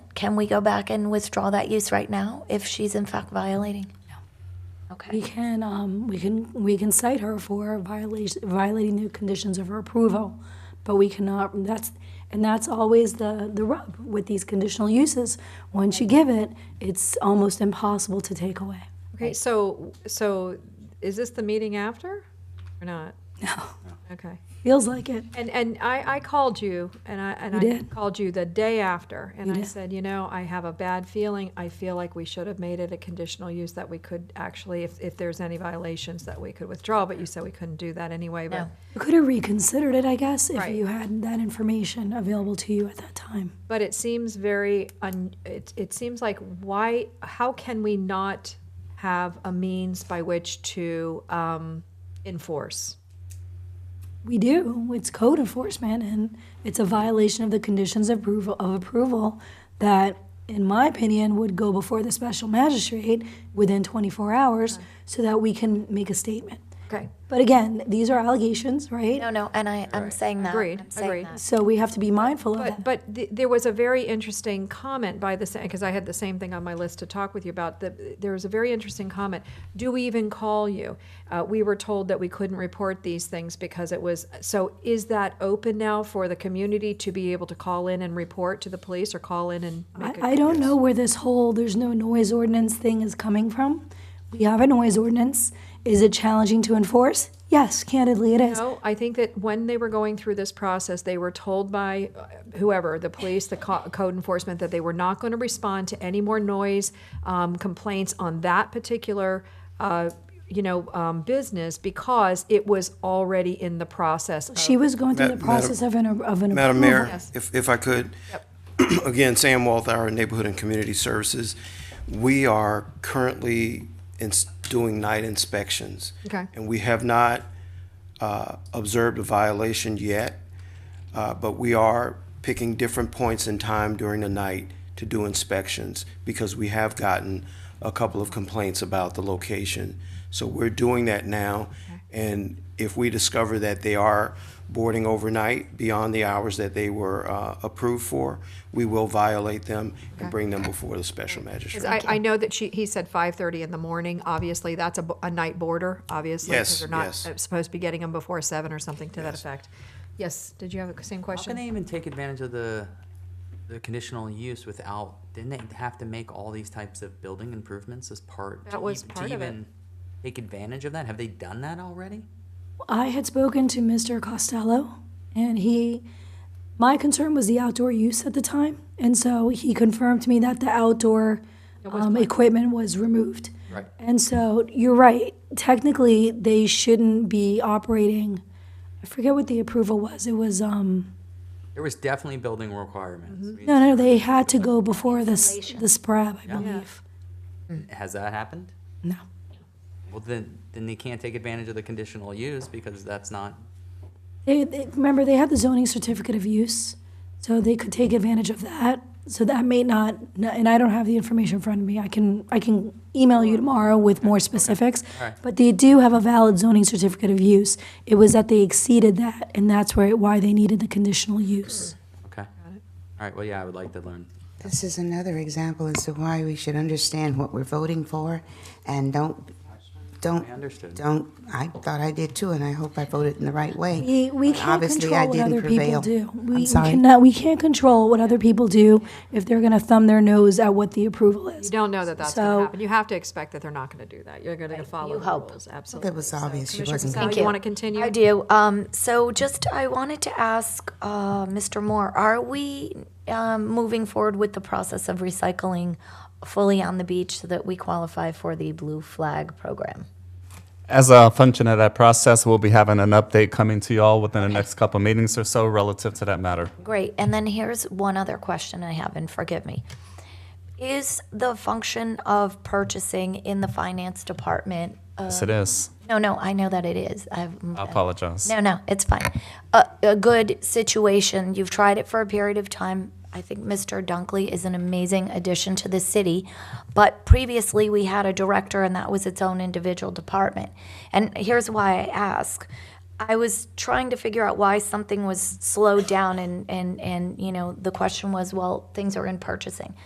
can we go back and withdraw that use right now if she's in fact violating? We can, um, we can, we can cite her for violation, violating the conditions of her approval, but we cannot, that's, and that's always the, the rub with these conditional uses. Once you give it, it's almost impossible to take away. Okay, so, so is this the meeting after or not? No, Okay. feels like it. And, and I, I called you and I, and You I did. called you the day after. And You I did. said, you know, I have a bad feeling. I feel like we should have made it a conditional use that we could actually, if, if there's any violations that we could withdraw, but you said we couldn't do that anyway, but, No. You could have reconsidered it, I guess, if Right. you had that information available to you at that time. but it seems very, un, it, it seems like why, how can we not have a means by which to, um, enforce? We do. It's code enforcement, and it's a violation of the conditions of approval, of approval that, in my opinion, would go before the special magistrate within 24 hours so that we can make a statement. Okay. But again, these are allegations, right? No, no, and I, I'm saying that. Agreed, I'm saying agreed. that. So we have to be mindful of But, that. but th- there was a very interesting comment by the, because I had the same thing on my list to talk with you about, that there was a very interesting comment. Do we even call you? Uh, we were told that we couldn't report these things because it was, so is that open now for the community to be able to call in and report to the police or call in and make a? I, I don't know where this whole there's no noise ordinance thing is coming from. We have a noise ordinance. Is it challenging to enforce? Yes, candidly, it is. No, I think that when they were going through this process, they were told by uh, whoever, the police, the co- code enforcement, that they were not going to respond to any more noise um, complaints on that particular, uh, you know, um, business because it was already in the process. of- She was going through Ma- the process of an, of an Madam approval. Mayor, if, if I could, again, Sam Walthour, Neighborhood and Community Services. We are currently ins- doing night inspections. Okay. And we have not uh, observed a violation yet, uh, but we are picking different points in time during the night to do inspections because we have gotten a couple of complaints about the location. So we're doing that now. And if we discover that they are boarding overnight beyond the hours that they were uh, approved for, we will violate them and bring them before the special magistrate. 'Cause I, I know that she, he said five thirty in the morning. Obviously, that's a, bo- a night border, obviously. 'cause Yes, They're not yes. uh, supposed to be getting them before seven or something to that effect. Yes, did you have the same How can they question? even take advantage of the, the conditional use without, didn't they have to make all these types of building improvements as part? to That was ev- part of To it. even take advantage of that? Have they done that already? I had spoken to Mr. Costello, and he, my concern was the outdoor use at the time, and so he confirmed to me that the outdoor um, equipment was removed. Right. And so you're right. Technically, they shouldn't be operating. I forget what the approval was. It was um There was definitely building requirements. Mm-hmm. I mean, no no they had to go before this the SPRAB I believe. Has that happened? No. Well, then, then they can't take advantage of the conditional use because that's not, They, they remember they had the zoning certificate of use, so they could take advantage of that. So that may not, and I don't have the information in front of me. I can I can email you tomorrow with more specifics. Alright. But they do have a valid zoning certificate of use. It was that they exceeded that, and that's where why they needed the conditional use. okay. All right, well, yeah, I would like to learn. This is another example as to why we should understand what we're voting for and don't, don't, I understood. don't, I thought I did too, and I hope I voted in the right way. We, we But can't obviously I control what didn't other people prevail. do. We, I'm we sorry. cannot. We can't control what other people do if they're going to thumb their nose at what the approval is. You don't know that that's going So- to happen. You have to expect that they're not going to do that. You're going to follow the rules, absolutely. was So, obvious she Commissioner wasn't Casale, gonna Oh, you want to continue? I do. Um, so just, I wanted to ask, uh, Mr. Moore, are we, um, moving forward with the process of recycling fully on the beach so that we qualify for the blue flag program? As a function of that process, we'll be having an update coming to y'all within the next couple meetings or so relative to that matter. Great. And then here's one other question I have, and forgive me. Is the function of purchasing in the finance department? Uh, Yes, it is. no, no, I know that it is. I've, I apologize. no, no, it's fine. A, a good situation. You've tried it for a period of time. I think Mr. Dunkley is an amazing addition to the city. But previously, we had a director, and that was its own individual department. And here's why I ask. I was trying to figure out why something was slowed down, and, and, and you know, the question was, well, things are in purchasing.